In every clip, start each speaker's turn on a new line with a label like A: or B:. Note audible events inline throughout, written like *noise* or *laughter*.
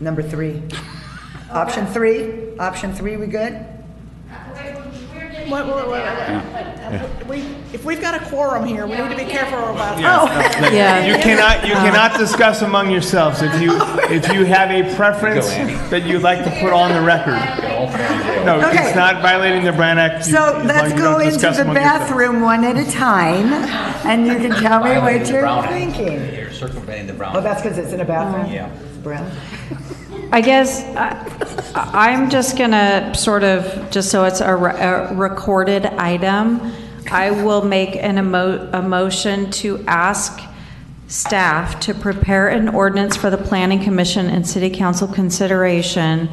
A: Number three. Option three, option three, we good?
B: Wait, wait, wait, wait. We, if we've got a quorum here, we need to be careful about, oh,
C: Yes, no, no.
D: Yeah.
E: You cannot, you
A: Uh-huh.
E: cannot discuss among yourselves.
A: *laughs*
E: If you, if you have a preference that you'd like to put on the record. No,
A: Okay.
E: it's not violating the Brown Act. You-
A: So
E: as long as
A: let's
E: you
A: go
E: don't
A: into
E: discuss
A: the
E: among yourselves.
A: bathroom one at a time, and you can tell
D: *laughs*
A: me what you're
C: Brown Act.
A: thinking.
C: You're circumventing the Brown
A: Oh,
C: Act.
A: that's because it's in a bathroom?
C: Yeah.
A: It's brown.
D: I guess I- I'm just gonna sort of, just so it's a re- a recorded item, I will make an emo, a motion to ask staff to prepare an ordinance for the planning commission and city council consideration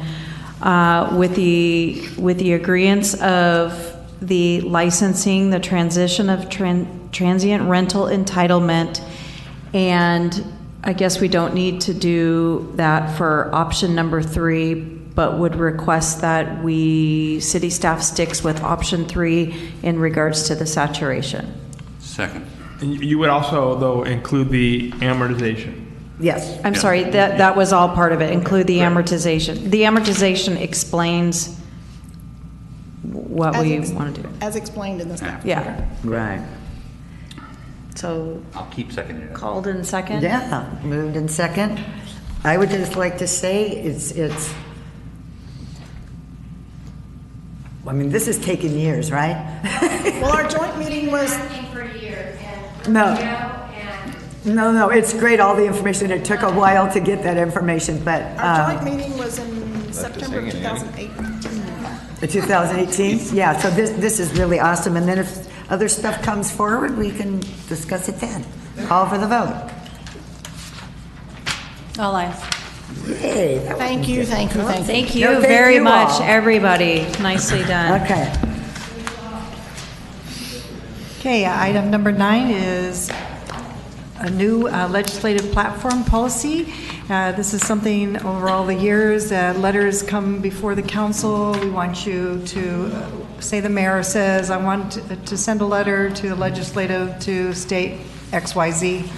D: uh, with the, with the agreeance of the licensing, the transition of tran- transient rental entitlement, and I guess we don't need to do that for option number three, but would request that we, city staff sticks with option three in regards to the saturation.
F: Second.
E: And you- you would also, though, include the amortization.
A: Yes.
D: I'm sorry, that, that was all part of it, include the amortization. The amortization explains what
B: As
D: we
B: ex-
D: want to do.
B: as explained in the staff.
D: Oh. Yeah,
A: Right.
D: so
F: I'll keep seconding it.
D: called in second?
A: Yeah, moved in second. I would just like to say it's, it's, I mean, this has taken years, right? *laughs*
B: Well, our joint meeting was,
G: asking for a year and.
A: No.
G: And
A: No, no, it's great, all the information. It took a while to get that information, but
B: our
A: uh,
B: joint meeting was in September of 2008.
A: 2018, yeah, so this, this is really awesome. And then if other stuff comes forward, we can discuss it then. Call for the vote.
D: All eyes.
A: Yay, that was-
B: Thank you, thank you, thank you.
D: Thank
A: No,
D: you
A: thank
D: very
A: you
D: much,
A: all.
D: everybody. Nicely done.
A: Okay.
H: Okay, item number nine is a new uh, legislative platform policy. Uh, This is something over all the years, uh, letters come before the council. We want you to, uh, say the mayor says, I want uh, to send a letter to the legislative to state XYZ.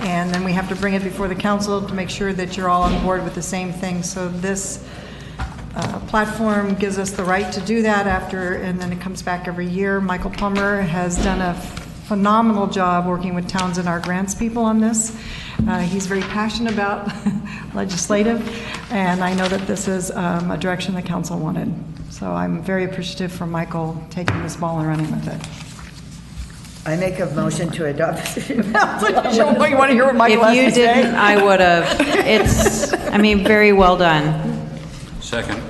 H: And then we have to bring it before the council to make sure that you're all on board with the same thing. So this uh, platform gives us the right to do that after, and then it comes back every year. Michael Plummer has done a phenomenal job working with towns and our grants people on this. Uh, He's very passionate about *laughs* legislative, and I know that this is um, a direction the council wanted. So I'm very appreciative for Michael taking this ball and running with it.
A: I make a motion to adopt. *laughs*
H: You want to hear what
D: If you didn't, I would have. It's, I mean, very well done.
F: Second.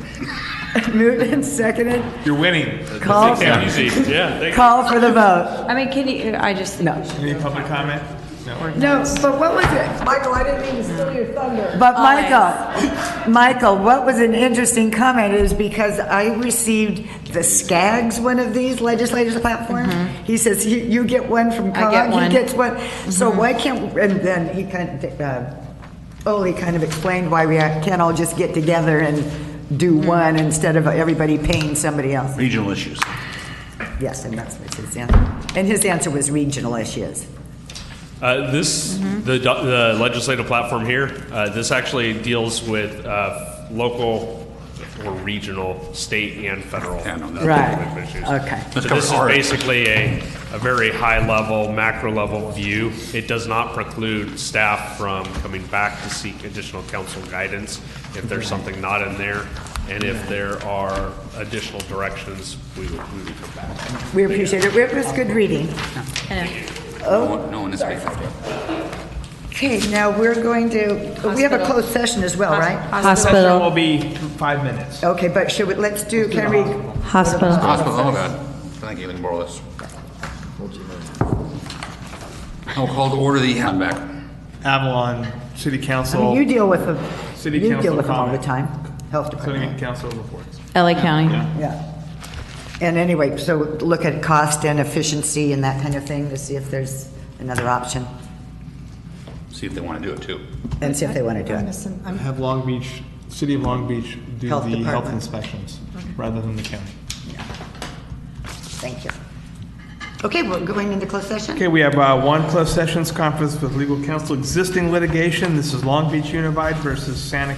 A: Moved and seconded.
E: You're winning.
A: Call, *laughs*
I: Yeah, thank
A: call for the vote.
D: I mean, can you, I just.
A: No.
E: Any public comment? No.
A: No, but what was it? Michael, I didn't mean to steal your thunder.
D: Oh,
A: But Michael, *laughs* Michael, what was an interesting comment is because I received the Skaggs one of these legislators platform. He says, "You- you get one from
D: Mm-hmm. I get
A: COG, he
D: one. Mm-hmm.
A: gets one. So why can't, and then he kind of, uh, Ole kind of explained why we can't all just get together and do
D: Mm-hmm.
A: one instead of everybody paying somebody else.
F: Regional issues.
A: Yes, and that's what his answer, and his answer was regional issues.
I: Uh, This,
A: Mm-hmm.
I: the do- the legislative platform here, uh, this actually deals with uh, local or regional, state, and federal.
F: Yeah, no, that-
A: Right.
I: issues.
A: Okay.
I: So
F: Let's go
I: this is
F: hard.
I: basically a, a very high-level, macro-level view. It does not preclude staff from coming back to seek additional council guidance if there's something not in there, and if there are additional directions, we would, we would come back.
A: We appreciate it. It was good reading. Oh.
F: No one- no one is making that.
A: Okay, now we're going to, we have a
D: Hospital.
A: closed session as well, right?
E: Session will
D: Hospital,
E: be five minutes.
A: Okay, but should we, let's do, can we,
D: hospital.
F: Hospital, oh God. Thank you, I can borrow this. I'll call to order the, I'm back.
E: Avalon City Council,
A: you deal with them,
E: City
A: you deal
E: council
A: with them all the
E: comment.
A: time, health
E: City
A: department,
E: Council reports.
D: LA County.
A: yeah. And anyway, so look at cost and efficiency and that kind of thing to see if there's another option
F: See if they want to do it too.
A: and see if they want to do
H: I'm
A: it.
H: missing-
E: I
H: I'm-
E: Have Long Beach, City of Long Beach do
A: Health
E: the health
A: department.
E: inspections rather than the county.
A: Thank you. Okay, we're going into closed session?
E: Okay, we have uh, one closed sessions conference with legal counsel, existing litigation. This is Long Beach Unified versus Santa